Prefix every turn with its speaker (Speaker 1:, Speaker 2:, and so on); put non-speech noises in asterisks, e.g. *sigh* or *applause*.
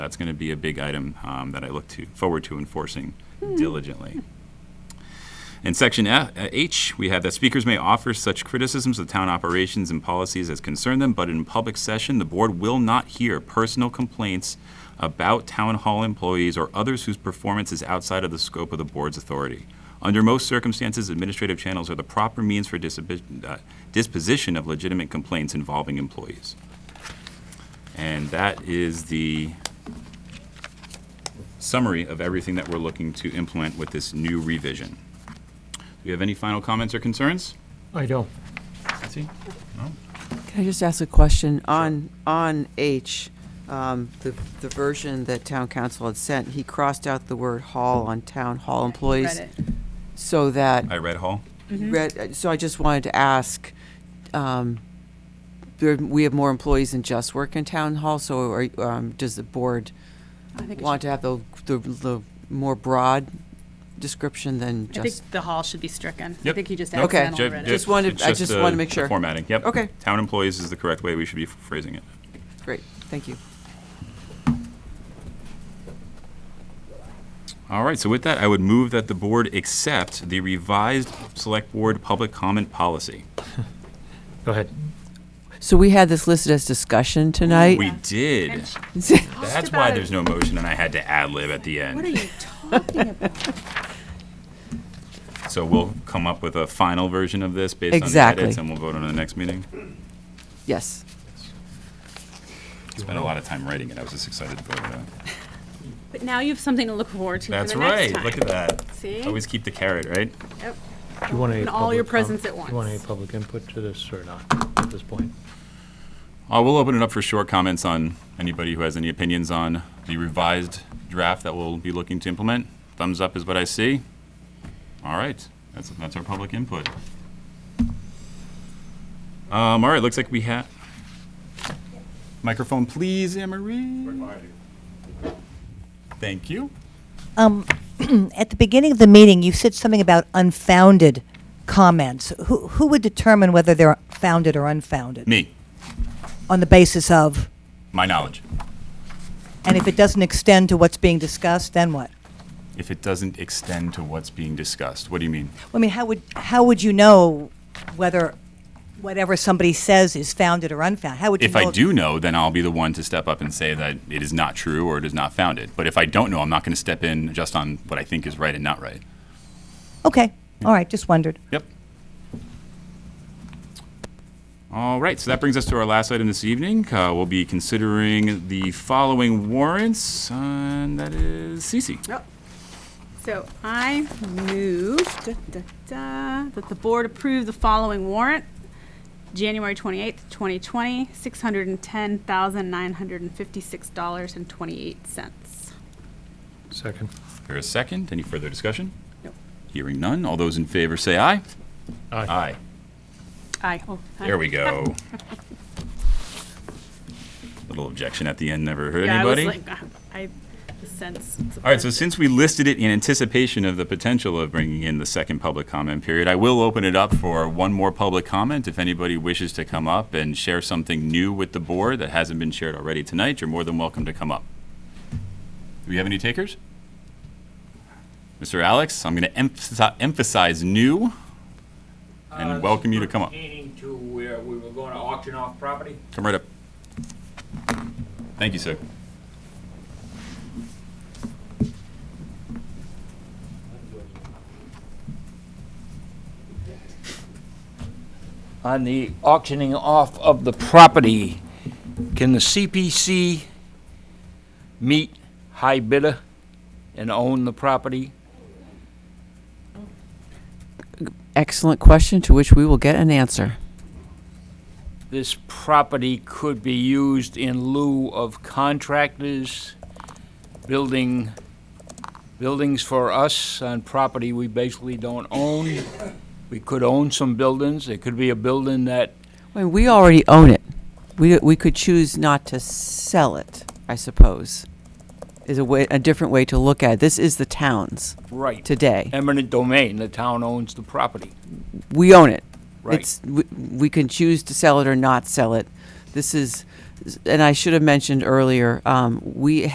Speaker 1: That's going to be a big item um, that I look to, forward to enforcing diligently. In section F- uh, H, we have that speakers may offer such criticisms of town operations and policies as concern them, but in public session, the board will not hear personal complaints about town hall employees or others whose performance is outside of the scope of the board's authority. Under most circumstances, administrative channels are the proper means for disabi- uh, disposition of legitimate complaints involving employees. And that is the summary of everything that we're looking to implement with this new revision. Do you have any final comments or concerns?
Speaker 2: I don't.
Speaker 1: Betsy?
Speaker 3: Can I just ask a question? On, on H, um, the, the version that town council had sent, he crossed out the word hall on town hall employees.
Speaker 4: Read it. Mm-hmm.
Speaker 3: So that,
Speaker 1: I read Hall.
Speaker 3: red- so I just wanted to ask, um, there, we have more employees than just work in town hall, so are, um, does the board
Speaker 4: I think it
Speaker 3: want
Speaker 4: should-
Speaker 3: to have the, the, the more broad description than
Speaker 4: I
Speaker 3: just?
Speaker 4: think the hall should be stricken. I
Speaker 1: Yep.
Speaker 4: think you just
Speaker 1: Nope.
Speaker 3: Okay.
Speaker 4: accidentally read
Speaker 3: Just
Speaker 4: it.
Speaker 3: wanted-
Speaker 1: It's
Speaker 3: I just wanted to
Speaker 1: the-
Speaker 3: make
Speaker 1: the
Speaker 3: sure.
Speaker 1: Formatting, yep.
Speaker 3: Okay.
Speaker 1: Town employees is the correct way we should be phrasing it.
Speaker 3: Great, thank you.
Speaker 1: All right, so with that, I would move that the board accept the revised Select Board Public Comment Policy.
Speaker 2: Go ahead.
Speaker 3: So we had this listed as discussion tonight?
Speaker 1: We did.
Speaker 4: And she-
Speaker 1: That's
Speaker 4: about
Speaker 1: why
Speaker 4: it.
Speaker 1: there's no motion, and I had to ad-lib at the
Speaker 4: What
Speaker 1: end.
Speaker 4: are you talking about?
Speaker 1: So we'll come up with a final version of this based on the edits,
Speaker 3: Exactly.
Speaker 1: and we'll vote on it the next meeting.
Speaker 3: *laughs* Yes.
Speaker 1: Spent a lot of time writing it. I was just excited to vote on it.
Speaker 4: But now you have something to look forward to for
Speaker 1: That's
Speaker 4: the next
Speaker 1: right.
Speaker 4: time.
Speaker 1: Look at that.
Speaker 4: See?
Speaker 1: Always keep the carrot, right?
Speaker 4: Yep.
Speaker 2: Do you want any
Speaker 4: And all your
Speaker 2: public com-
Speaker 4: presents at once.
Speaker 2: Do you want any public input to this or not at this point?
Speaker 1: Uh, we'll open it up for short comments on anybody who has any opinions on the revised draft that we'll be looking to implement. Thumbs up is what I see. All right, that's, that's our public input. Um, all right, looks like we have, microphone please, Anne Marie. Thank you.
Speaker 5: At the beginning of the meeting, you said something about unfounded comments. Who, who would determine whether they're founded or unfounded?
Speaker 1: Me,
Speaker 5: On the basis of,
Speaker 1: my knowledge.
Speaker 5: and if it doesn't extend to what's being discussed, then what?
Speaker 1: If it doesn't extend to what's being discussed, what do you mean?
Speaker 5: I mean, how would, how would you know whether whatever somebody says is founded or unfounded? How would you
Speaker 1: If
Speaker 5: know?
Speaker 1: I do know, then I'll be the one to step up and say that it is not true or it is not founded. But if I don't know, I'm not going to step in just on what I think is right and not right.
Speaker 5: Okay, all right, just wondered.
Speaker 1: Yep. All right, so that brings us to our last item this evening. Uh, we'll be considering the following warrants, and that is Cece.
Speaker 4: Yep. So I move da, da, da, that the board approve the following warrant. January 28th, 2020, $610,956.28.
Speaker 2: Second.
Speaker 1: Here a second. Any further discussion?
Speaker 4: Nope.
Speaker 1: Hearing none. All those in favor say aye.
Speaker 2: Aye.
Speaker 1: Aye.
Speaker 4: Aye. Oh, aye.
Speaker 1: There we
Speaker 4: *laughs*
Speaker 1: go. Little objection at the end never hurt
Speaker 4: Yeah, I was
Speaker 1: anybody.
Speaker 4: like, ah, I sense.
Speaker 1: All right, so since we listed it in anticipation of the potential of bringing in the second public comment period, I will open it up for one more public comment. If anybody wishes to come up and share something new with the board that hasn't been shared already tonight, you're more than welcome to come up. Do we have any takers? Mr. Alex, I'm going to emphasize, emphasize new
Speaker 6: Uh,
Speaker 1: and welcome you to come up.
Speaker 6: Pertaining to where we were going to auction off property?
Speaker 1: Come right up. Thank you, sir.
Speaker 6: On the auctioning off of the property, can the CPC meet high bidder and own the property?
Speaker 3: Excellent question to which we will get an answer.
Speaker 6: This property could be used in lieu of contractors building buildings for us on property we basically don't own. We could own some buildings. There could be a building that
Speaker 3: Well, we already own it. We, we could choose not to sell it, I suppose, is a way, a different way to look at it. This is the town's
Speaker 6: Right.
Speaker 3: today.
Speaker 6: Eminent domain, the town owns the property.
Speaker 3: We own it.
Speaker 6: Right.
Speaker 3: It's, we, we can choose to sell it or not sell it. This is, and I should have mentioned earlier, um, we